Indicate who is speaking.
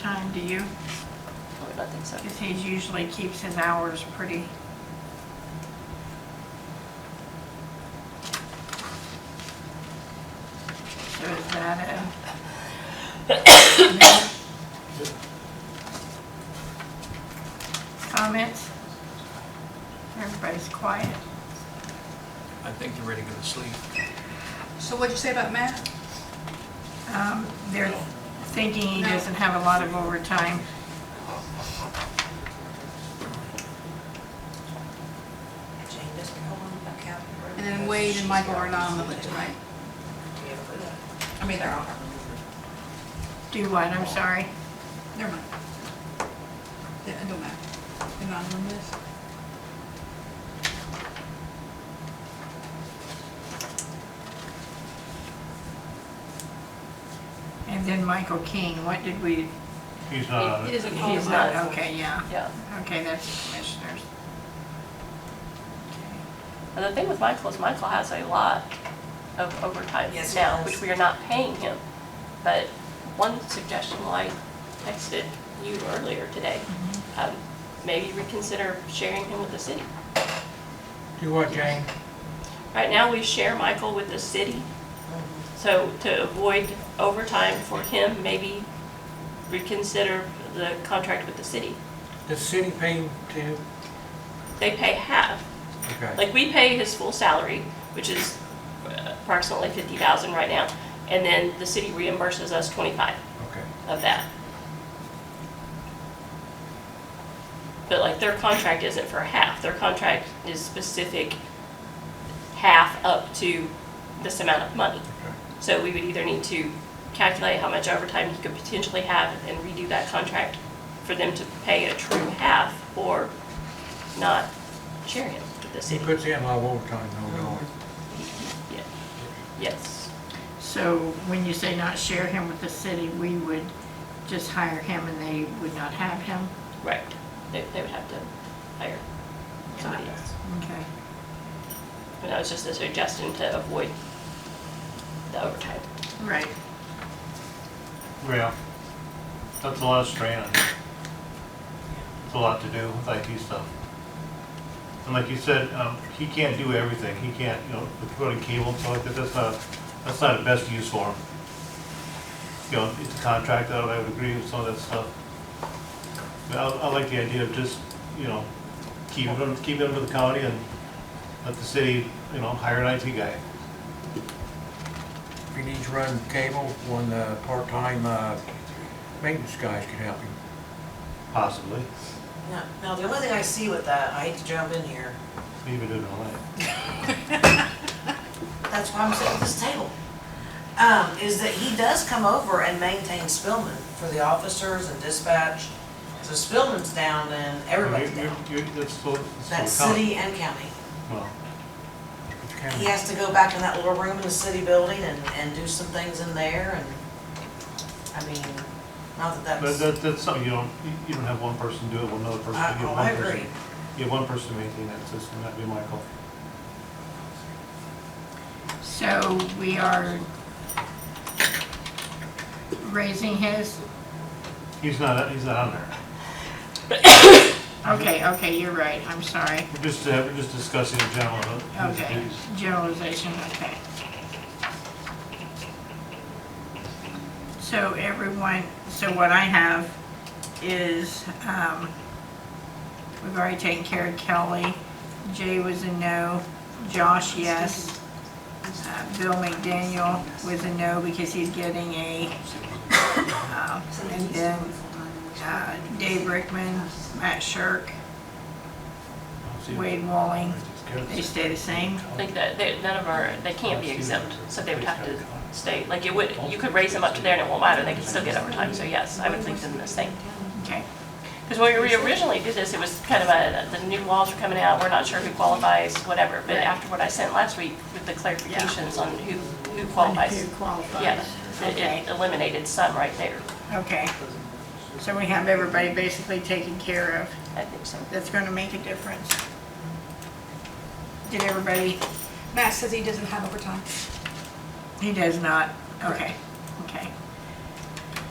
Speaker 1: time, do you?
Speaker 2: Oh, I would not think so.
Speaker 1: Because he usually keeps his hours pretty. So is that a? Comments? Everybody's quiet.
Speaker 3: I think they're ready to go to sleep.
Speaker 4: So what'd you say about Matt?
Speaker 1: Um, They're thinking he doesn't have a lot of overtime.
Speaker 4: And then Wade and Michael are not on the list, right? I mean, they're on.
Speaker 1: Do what, I'm sorry?
Speaker 4: Never mind. Yeah, It don't matter. They're not on the list.
Speaker 1: And then Michael King, what did we,
Speaker 5: He's uh, not on
Speaker 4: He
Speaker 5: it.
Speaker 4: doesn't call
Speaker 1: he's
Speaker 4: them
Speaker 1: not,
Speaker 4: out.
Speaker 1: okay, yeah.
Speaker 2: Yeah.
Speaker 1: Okay, that's commissioners.
Speaker 2: And the thing with Michael is Michael has a lot of overtime
Speaker 6: Yes, he
Speaker 2: now,
Speaker 6: does.
Speaker 2: which we are not paying him. But one suggestion, well, I texted you earlier today,
Speaker 4: Mm-hmm.
Speaker 2: um, maybe reconsider sharing him with the city.
Speaker 3: Do what, Jane?
Speaker 2: Right now, we share Michael with the city, so to avoid overtime for him, maybe reconsider the contract with the city.
Speaker 3: The city paid to,
Speaker 2: They pay half,
Speaker 3: okay.
Speaker 2: Like, we pay his full salary, which is approximately fifty thousand right now, and then the city reimburses us twenty-five
Speaker 3: Okay.
Speaker 2: of that. But like, their contract isn't for half, their contract is specific half up to this amount of money.
Speaker 3: Okay.
Speaker 2: So we would either need to calculate how much overtime he could potentially have and redo that contract for them to pay a true half, or not share him with the
Speaker 3: He
Speaker 2: city.
Speaker 3: puts in a lot of overtime, no doubt.
Speaker 2: Yeah. Yes.
Speaker 1: So when you say not share him with the city, we would just hire him and they would not have him?
Speaker 2: Right. They, they would have to hire somebody else.
Speaker 1: Okay.
Speaker 2: And that was just a suggestion to avoid the overtime.
Speaker 1: Right.
Speaker 5: Well, that's a lot of strain on you. It's a lot to do with IT stuff. And like you said, um, he can't do everything. He can't, you know, with running cable and stuff like that, that's not, that's not the best use for him. You know, it's a contract, I I would agree with some of that stuff. But I, I like the idea of just, you know, keeping him, keeping him to the county and let the city, you know, hire an IT guy.
Speaker 3: If he needs to run cable, one uh, part-time uh, maintenance guys can help him.
Speaker 5: Possibly.
Speaker 6: Now, now, the only thing I see with that, I hate to jump in here,
Speaker 5: Maybe do it in LA.
Speaker 6: that's why I'm sitting at this table, um, is that he does come over and maintain Spillman for the officers and dispatch. So Spillman's down, then everybody's
Speaker 5: You're-
Speaker 6: down.
Speaker 5: you're- you're- that's still- that's
Speaker 6: That's
Speaker 5: still counting.
Speaker 6: city and county.
Speaker 5: Well,
Speaker 3: It's
Speaker 6: He
Speaker 3: kind of-
Speaker 6: has to go back in that little room in the city building and, and do some things in there and, I mean, not that
Speaker 5: But
Speaker 6: that's,
Speaker 5: that, that's something you don't, you- you don't have one person do it, one other person.
Speaker 6: I,
Speaker 5: You
Speaker 6: oh,
Speaker 5: have
Speaker 6: I
Speaker 5: one
Speaker 6: agree.
Speaker 5: person- You have one person maintaining that system, that'd be Michael.
Speaker 1: So we are raising his,
Speaker 5: He's not, he's not on there.
Speaker 1: okay, okay, you're right, I'm sorry.
Speaker 5: We're just, uh, we're just discussing in general. uh, his
Speaker 1: Okay,
Speaker 5: duties.
Speaker 1: generalization, okay. So everyone, so what I have is, um, we've already taken care of Kelly. Jay was a no, Josh, yes. Uh, Bill McDaniel was a no because he's getting a, um, and then, uh, Dave Rickman, Matt Shirk,
Speaker 5: See,
Speaker 1: Wade Walling,
Speaker 5: it's good.
Speaker 1: they stay the same.
Speaker 2: Like that, they, none of our, they can't be exempt, so they would have to stay, like it would, you could raise them up to there and it won't matter, they could still get overtime, so yes, I would leave them the same.
Speaker 1: Okay.
Speaker 2: Because when we originally did this, it was kind of a, the new laws were coming out, we're not sure who qualifies, whatever. But after what I sent last week with the clarifications on who, who qualifies,
Speaker 1: Who qualifies?
Speaker 2: yeah, it- it eliminated some right there,
Speaker 1: Okay. So we have everybody basically taken care of.
Speaker 2: I think so.
Speaker 1: That's going to make a difference. Did everybody?
Speaker 4: Matt says he doesn't have overtime.
Speaker 1: He does not. Okay, okay.